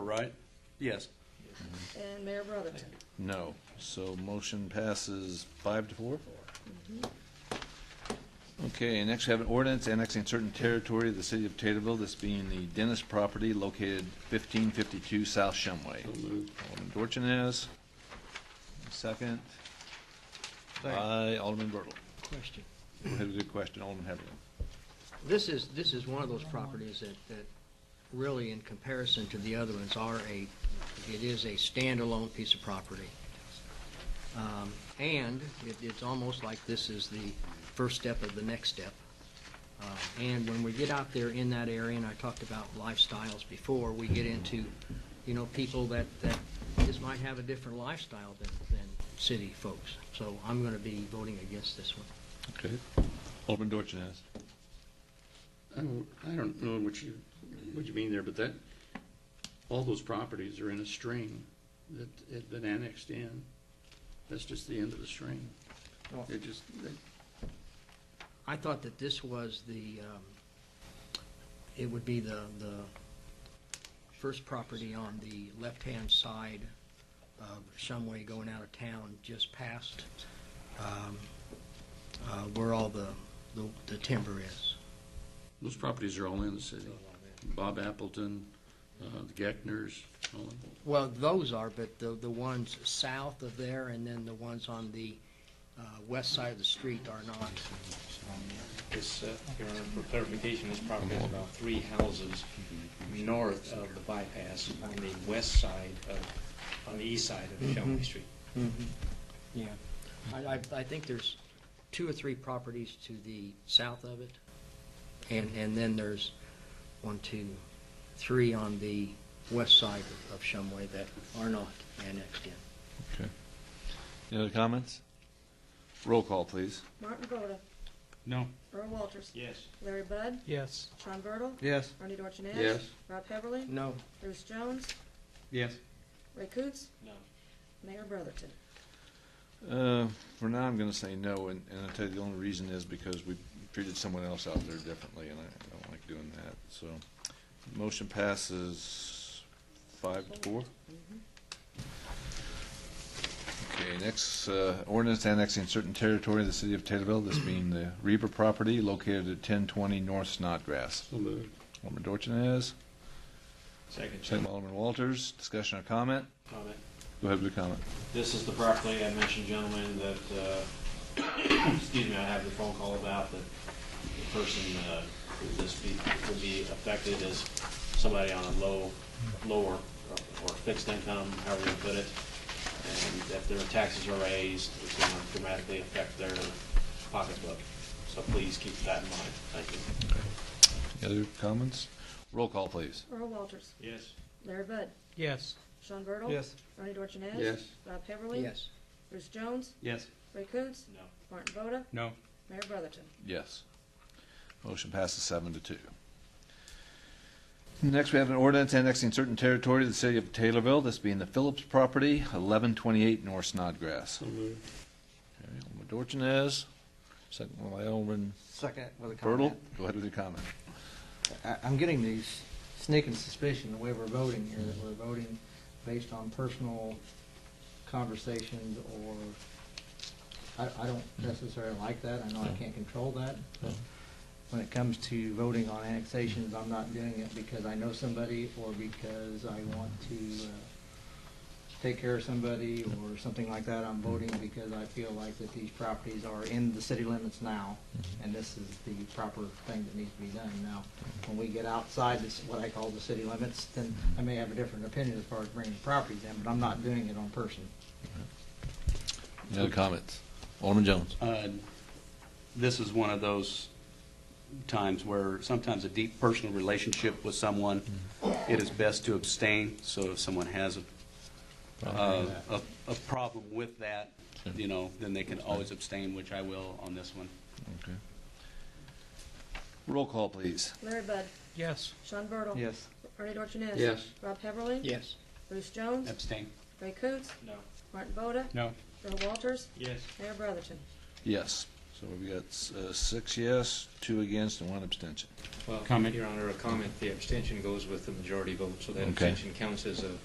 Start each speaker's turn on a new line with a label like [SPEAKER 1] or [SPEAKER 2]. [SPEAKER 1] right? Yes.
[SPEAKER 2] And Mayor Brotherton.
[SPEAKER 3] No. So motion passes five to four? Okay, next we have an ordinance annexing certain territory of the city of Taterville, this being the Dennis property located fifteen fifty-two South Shumway. Alderman Dorchenez, second.
[SPEAKER 4] Uh,
[SPEAKER 3] By Alderman Bertle.
[SPEAKER 4] Question.
[SPEAKER 3] Go ahead with your question, Alderman Heatherly.
[SPEAKER 4] This is, this is one of those properties that, that really in comparison to the other ones are a, it is a standalone piece of property. Um, And it, it's almost like this is the first step of the next step. Uh, And when we get out there in that area, and I talked about lifestyles before, we get into, you know, people that, that just might have a different lifestyle than, than city folks. So I'm gonna be voting against this one.
[SPEAKER 3] Okay. Alderman Dorchenez.
[SPEAKER 5] I don't, I don't know what you, what you mean there, but that, all those properties are in a string that had been annexed in. That's just the end of the string.
[SPEAKER 4] Well-
[SPEAKER 5] It just, that-
[SPEAKER 4] I thought that this was the, um, it would be the, the first property on the left-hand side of Shumway going out of town, just past, um, uh, where all the, the- the timber is.
[SPEAKER 5] those properties are all in the city. Bob Appleton, uh, the Geckners, all of them.
[SPEAKER 4] Well, those are, but the, the ones south of there and then the ones on the, uh, west side of the street are not.
[SPEAKER 6] This, uh, Your Honor, for clarification, this property is about three houses north of the bypass on the west side of, on the east side of Shelby Street.
[SPEAKER 4] Yeah. I, I, I think there's two or three properties to the south of it. And, and then there's one, two, three on the west side of- of Shumway that are not annexed in.
[SPEAKER 3] Okay. Any other comments? Roll call, please.
[SPEAKER 2] Martin Voda.
[SPEAKER 1] No.
[SPEAKER 2] Earl Walters.
[SPEAKER 6] Yes.
[SPEAKER 2] Larry Bud.
[SPEAKER 1] Yes.
[SPEAKER 2] Sean Bertle.
[SPEAKER 1] Yes.
[SPEAKER 2] Bernie Dorchenez.
[SPEAKER 5] Yes.
[SPEAKER 2] Rob Heatherly.
[SPEAKER 4] No,
[SPEAKER 2] Bruce Jones.
[SPEAKER 1] Yes.
[SPEAKER 2] Ray Coontz.
[SPEAKER 6] No.
[SPEAKER 2] Mayor Brotherton.
[SPEAKER 3] Uh, For now, I'm going to say no, and and I'll tell you, the only reason is because we treated someone else out there differently, and I I don't like doing that, so. Motion passes five to four. Okay, next, uh, ordinance annexing certain territory of the city of Taterville, this being the Reber property located at 1020 North Snodgrass.
[SPEAKER 5] So moved.
[SPEAKER 3] Alderman Dorchenez,
[SPEAKER 6] Second.
[SPEAKER 3] second by Alderman Walters, discussion or comment?
[SPEAKER 6] Comment.
[SPEAKER 3] Go ahead with your comment.
[SPEAKER 6] This is the property I mentioned, gentlemen, that, uh, excuse me, I have the phone call about, that the person, uh, would this be, would be affected as somebody on a low, lower, or fixed income, however you put it. And if their taxes are raised, it's going to dramatically affect their pocketbook. So please keep that in mind. Thank you.
[SPEAKER 3] Any other comments? Roll call, please.
[SPEAKER 2] Earl Walters.
[SPEAKER 6] Yes.
[SPEAKER 2] Larry Bud.
[SPEAKER 1] Yes.
[SPEAKER 2] Sean Bertle.
[SPEAKER 1] Yes.
[SPEAKER 2] Bernie Dorchenez.
[SPEAKER 5] Yes.
[SPEAKER 2] Rob Heatherly.
[SPEAKER 4] yes.
[SPEAKER 2] Bruce Jones.
[SPEAKER 1] Yes.
[SPEAKER 2] Ray Coontz.
[SPEAKER 6] No.
[SPEAKER 2] Martin Voda.
[SPEAKER 1] No.
[SPEAKER 2] Mayor Brotherton.
[SPEAKER 3] Yes. Motion passes seven to two. Next, we have an ordinance annexing certain territory to the city of Taylorville, this being the Phillips property, eleven twenty-eight North Snodgrass.
[SPEAKER 5] So moved.
[SPEAKER 3] Okay, Alderman Dorchenez, second one by Alderman
[SPEAKER 7] Second with a
[SPEAKER 3] Bertle.
[SPEAKER 7] comment.
[SPEAKER 3] Go ahead with your comment.
[SPEAKER 7] I- I'm getting these sneaking suspicion the way we're voting here, that we're voting based on personal conversations or, I, I don't necessarily like that. I know I can't control that. but When it comes to voting on annexations, I'm not doing it because I know somebody or because I want to, uh, take care of somebody or something like that. I'm voting because I feel like that these properties are in the city limits now, and this is the proper thing that needs to be done. Now, when we get outside this, what I call the city limits, then I may have a different opinion as far as bringing properties in, but I'm not doing it on person.
[SPEAKER 3] Any other comments? Alderman Jones.
[SPEAKER 1] Uh, This is one of those times where sometimes a deep personal relationship with someone, it is best to abstain, so if someone has a, a, a- a problem with that,
[SPEAKER 3] Sure.
[SPEAKER 1] you know, then they can always abstain, which I will on this one.
[SPEAKER 3] Okay. Roll call, please.
[SPEAKER 2] Larry Bud.
[SPEAKER 1] Yes.
[SPEAKER 2] Sean Bertle.
[SPEAKER 7] Yes.
[SPEAKER 2] Bernie Dorchenez.
[SPEAKER 5] Yes.
[SPEAKER 2] Rob Heatherly.
[SPEAKER 4] Yes.
[SPEAKER 2] Bruce Jones.
[SPEAKER 1] Abstain.
[SPEAKER 2] Ray Coontz.
[SPEAKER 6] No.
[SPEAKER 2] Martin Voda.
[SPEAKER 1] No.
[SPEAKER 2] Earl Walters.
[SPEAKER 6] Yes.
[SPEAKER 2] Mayor Brotherton.
[SPEAKER 3] Yes. So we've got uh, six yes, two against, and one abstention.
[SPEAKER 6] Well,
[SPEAKER 1] Comment.
[SPEAKER 6] Your Honor, a comment, the abstention goes with the majority vote, so that
[SPEAKER 3] Okay.
[SPEAKER 6] abstention counts as a